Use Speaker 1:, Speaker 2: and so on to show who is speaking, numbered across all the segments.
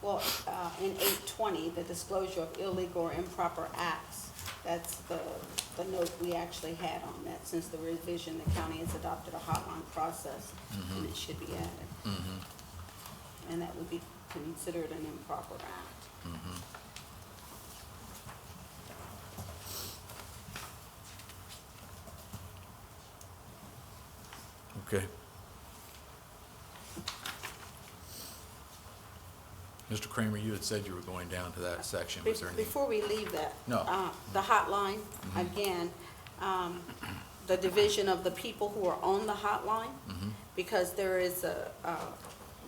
Speaker 1: well, uh, in eight twenty, the disclosure of illegal or improper acts, that's the, the note we actually had on that, since the revision, the county has adopted a hotline process, and it should be added.
Speaker 2: Mm-hmm.
Speaker 1: And that would be considered an improper act.
Speaker 2: Okay. Mr. Kramer, you had said you were going down to that section. Was there
Speaker 1: Be-
Speaker 2: any?
Speaker 1: Before we leave that.
Speaker 2: No. Mm-hmm.
Speaker 1: uh, The hotline, again, um, the division of the people who are on the hotline,
Speaker 2: Mm-hmm.
Speaker 1: because there is a, uh,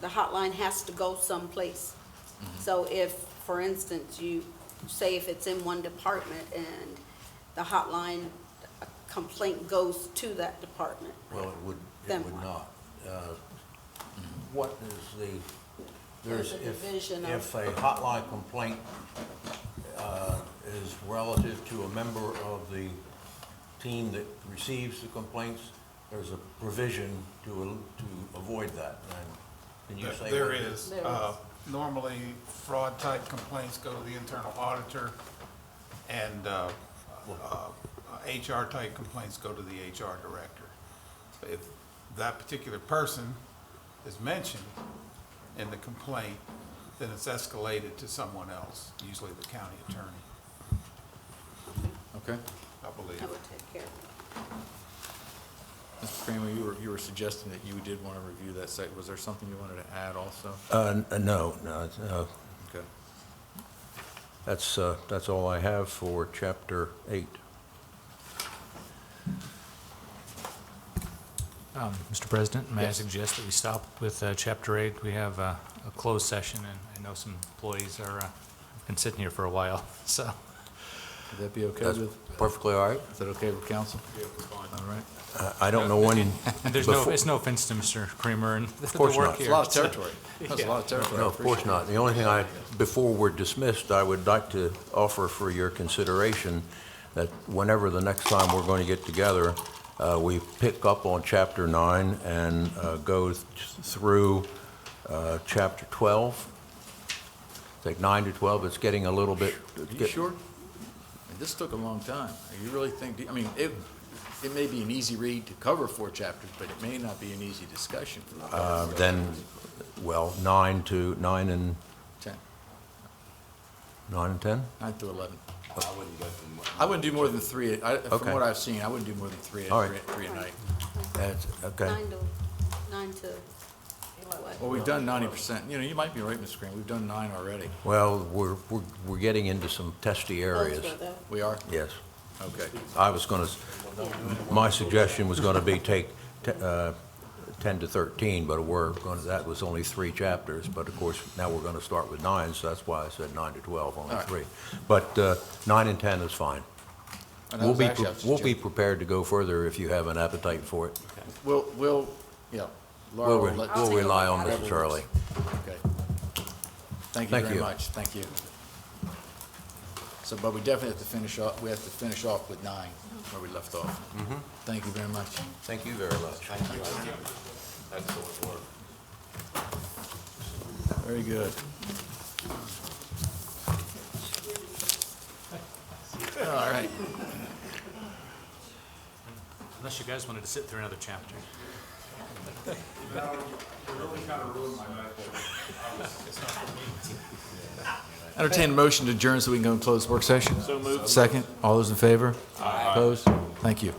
Speaker 1: the hotline has to go someplace.
Speaker 3: Mm-hmm.
Speaker 1: So if, for instance, you, say if it's in one department and the hotline complaint goes to that department.
Speaker 3: Well, it would,
Speaker 1: Then
Speaker 3: it would
Speaker 1: what?
Speaker 3: not. Uh, What is the, there's,
Speaker 1: There's a
Speaker 3: if,
Speaker 1: division of-
Speaker 3: if a hotline complaint uh, is relative to a member of the team that receives the complaints, there's a provision to, al- to avoid that, and can you say?
Speaker 4: There
Speaker 3: what-
Speaker 4: is.
Speaker 1: There
Speaker 4: Uh,
Speaker 1: is.
Speaker 4: Normally, fraud-type complaints go to the internal auditor, and uh, uh, HR-type complaints go to the HR director. If that particular person is mentioned in the complaint, then it's escalated to someone else, usually the county attorney,
Speaker 2: Okay.
Speaker 4: I believe.
Speaker 1: I would take care of
Speaker 2: Mr. Kramer, you were, you were suggesting that you did want to review that site. Was there something you wanted to add also?
Speaker 3: Uh, n- no, no, it's, uh,
Speaker 2: Okay.
Speaker 3: that's, uh, that's all I have for chapter eight.
Speaker 5: Um, Mr. President, may I suggest that we stop with uh, Chapter 8? We have uh, a closed session, and I know some employees are, uh, been sitting here for a while, so.
Speaker 2: Would that be okay
Speaker 3: That's
Speaker 2: with,
Speaker 3: perfectly all right.
Speaker 2: is that okay with council? All right.
Speaker 3: I- I don't know when,
Speaker 5: And there's no,
Speaker 3: Before-
Speaker 5: it's no offense to Mr. Kramer and the
Speaker 3: course
Speaker 5: work
Speaker 3: not.
Speaker 5: here.
Speaker 2: It's a lot of
Speaker 5: so-
Speaker 2: territory. That's a lot of territory.
Speaker 3: No, of course not. The only thing I, before we're dismissed, I would like to offer for your consideration that whenever the next time we're going to get together, uh, we pick up on Chapter 9 and uh, go th- through uh, Chapter 12. Take 9 to 12, it's getting a little bit...
Speaker 2: Are you sure? I mean, This took a long time. You really think, I mean, it, it may be an easy read to cover four chapters, but it may not be an easy discussion.
Speaker 3: Uh, Then, well, 9 to, 9 and,
Speaker 2: Ten,
Speaker 3: 9 and 10?
Speaker 2: nine through 11. I wouldn't do more than three, I, from
Speaker 3: Okay.
Speaker 2: what I've seen, I wouldn't do more than three,
Speaker 3: All right.
Speaker 2: three three a night.
Speaker 3: That's-
Speaker 1: it.
Speaker 3: Okay.
Speaker 1: Nine to, nine to what?
Speaker 2: Well, we've done ninety percent, you know, you might be right, Mr. Green, we've done nine already.
Speaker 3: Well, we're we're we're getting into some testy
Speaker 1: Oh,
Speaker 3: areas.
Speaker 1: Those were the-
Speaker 2: We are?
Speaker 3: Yes.
Speaker 2: Okay.
Speaker 3: I was going to, my suggestion was going to be take te- uh, 10 to 13, but we're going, to that was only three chapters, but of course, now we're going to start with nine, so that's why I said nine to 12, only
Speaker 2: All right.
Speaker 3: three. But uh, nine and 10 is fine.
Speaker 2: And that
Speaker 3: We'll
Speaker 2: was
Speaker 3: be,
Speaker 2: actually- I
Speaker 3: pre-
Speaker 2: was
Speaker 3: we'll
Speaker 2: just
Speaker 3: be
Speaker 2: joking.
Speaker 3: prepared to go further if you have an appetite for it.
Speaker 2: We'll, we'll, yeah. Laura
Speaker 3: We'll
Speaker 2: will
Speaker 3: re-
Speaker 2: let-
Speaker 3: we'll rely on
Speaker 2: Whatever
Speaker 3: Mrs. Hurley.
Speaker 2: works. Okay. Thank you
Speaker 3: Thank
Speaker 2: very
Speaker 3: you.
Speaker 2: much, thank you. So, but we definitely have to finish off, we have to finish off with nine, where we left off.
Speaker 3: Mm-hmm.
Speaker 2: Thank you very much.
Speaker 3: Thank you very much.
Speaker 2: Very good. All right.
Speaker 5: Unless you guys wanted to sit through another chapter.
Speaker 2: Entertain a motion to adjourn so we can go and close work session. So moved. Second, all those in favor? Aye. Opposed? Thank you.